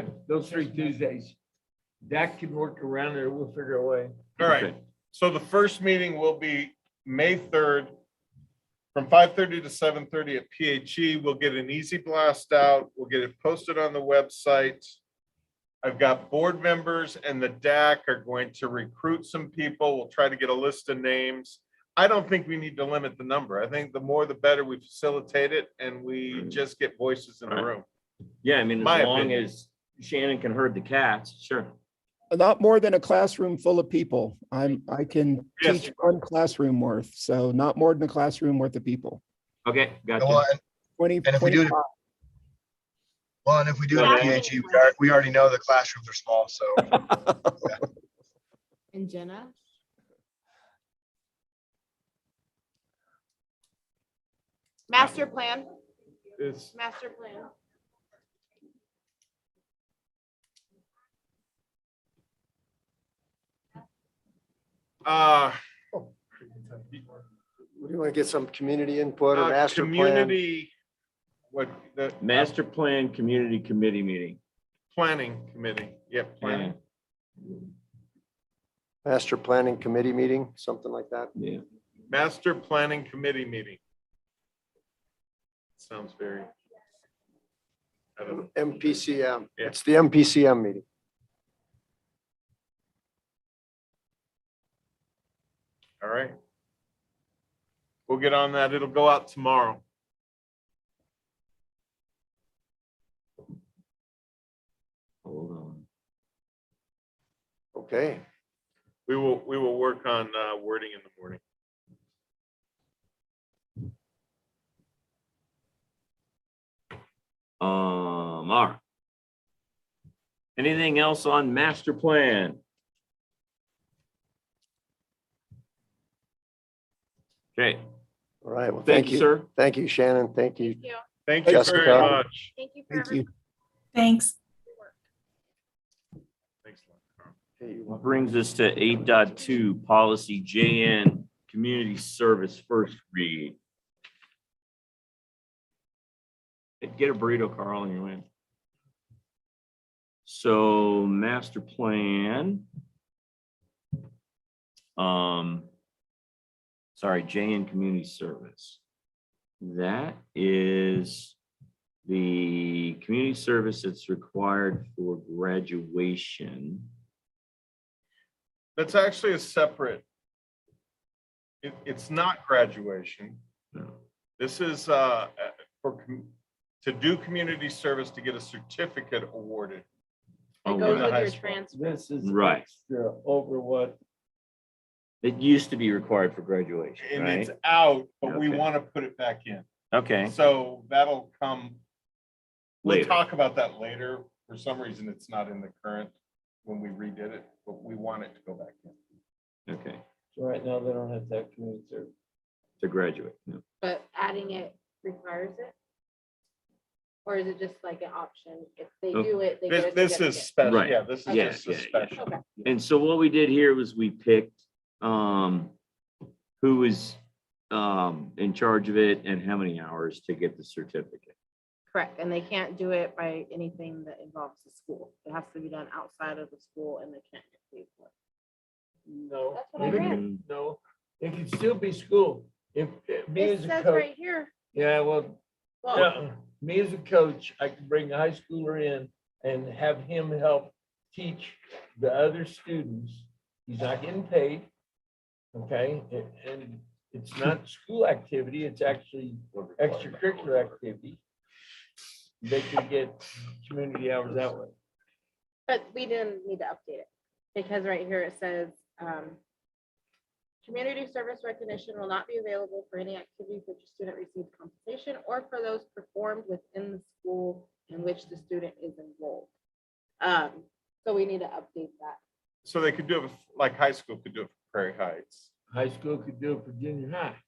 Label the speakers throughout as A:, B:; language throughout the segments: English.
A: Good, those three Tuesdays. That can work around it, we'll figure a way.
B: All right, so the first meeting will be May third from five thirty to seven thirty at PHE. We'll get an easy blast out. We'll get it posted on the website. I've got board members and the DAC are going to recruit some people. We'll try to get a list of names. I don't think we need to limit the number. I think the more the better we facilitate it and we just get voices in the room.
C: Yeah, I mean,
B: My
C: as long
B: opinion.
C: as Shannon can herd the cats, sure.
D: Not more than a classroom full of people. I'm, I can
B: Yes.
D: teach one classroom worth, so not more than a classroom worth of people.
C: Okay,
E: Well,
C: gotcha.
E: and,
D: Twenty,
E: And if we do it-
D: twenty-five.
E: well, and if we do it at
C: Yeah.
E: PHE, we are, we already know the classrooms are small, so.
F: And Jenna? Master plan,
B: It's,
F: master plan.
B: uh,
G: We want to get some community input or
B: uh,
G: master plan.
B: Community, what, the.
C: Master Plan Community Committee meeting.
B: Planning committee, yep,
C: Yeah,
B: planning.
G: Master planning committee meeting, something like that.
C: yeah.
B: Master Planning Committee meeting. Sounds very. I don't know.
G: MPCM.
B: Yeah.
G: It's the MPCM meeting.
B: All right. We'll get on that. It'll go out tomorrow.
C: Hold on.
G: Okay.
B: We will, we will work on uh, wording in the morning.
C: Um, all right. Anything else on master plan? Okay,
G: All right. Well,
C: thank you, sir.
G: Thank you, Shannon. Thank you.
B: Thank
F: Thank you.
B: you very
G: Jessica.
B: much.
F: Thank you for
D: Thank you.
F: everybody's
H: Thanks.
F: work.
B: Thanks. a lot.
G: Hey, you want-
C: Brings us to eight point two policy JN, community service first read. Get a burrito, Carl, and you're in. So master plan. Um. Sorry, JN Community Service. That is the community service that's required for graduation.
B: That's actually a separate. It, it's not graduation.
C: No.
B: This is uh, for, com- to do community service to get a certificate awarded.
C: Oh,
F: It
B: Go
F: goes
C: right.
B: to
F: with
B: high
F: your
B: school.
F: transfer.
A: This is
C: Right.
A: extra over what,
C: It used to be required for graduation,
B: And it's
C: right?
B: out, but we
C: Okay.
B: want to put it back in.
C: Okay,
B: So that'll come, we'll
C: later.
B: talk about that later. For some reason, it's not in the current when we redid it, but we want it to go back in.
C: Okay,
A: right now, they don't have that community service.
C: to graduate. yeah.
F: But adding it requires it? Or is it just like an option? If they
C: Oh.
F: do it, they
B: This,
F: get a
B: this is
F: certificate.
B: special,
C: Right.
B: yeah, this is
C: Yeah,
B: just a
C: yeah, yeah.
B: special.
F: Okay,
C: And so what we did here was we picked um who was um in charge of it and how many hours to get the certificate.
F: correct. And they can't do it by anything that involves the school. It has to be done outside of the school and they can't get paid for it.
A: No.
F: That's what I read.
C: Mhm.
A: No, it could still be school. If, if me
F: It
A: as a
F: says
A: coach,
F: right here,
A: yeah, well,
F: well,
A: yeah, me as a coach, I can bring a high schooler in and have him help teach the other students. He's not getting paid. Okay, A- and it's not school activity, it's actually extracurricular activity. They could get community hours that way.
F: but we didn't need to update it because right here it says, um, community service recognition will not be available for any activity for which a student receives compensation or for those performed within the school in which the student is enrolled. Um, so we need to update that.
B: So they could do it, with- like high school could do it for Prairie Heights.
A: High school could do it for junior high.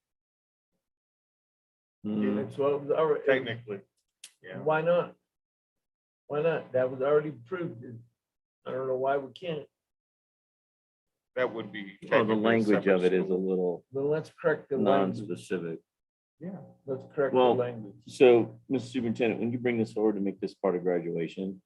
A: Yeah,
C: Mhm.
A: That's what was already.
B: Mm-hmm. Technically, yeah.
A: Why not? Why not? That was already proved. I don't know why we can't.
B: that would be.
C: Well, the
B: technically a
C: language of
B: separate
C: it is a
B: school.
C: little
A: Then let's correct the language.
C: non-specific.
A: Yeah. Let's correct the
C: Well-
A: language.
C: So, Mr. Superintendent, when you bring this forward to make this part of graduation,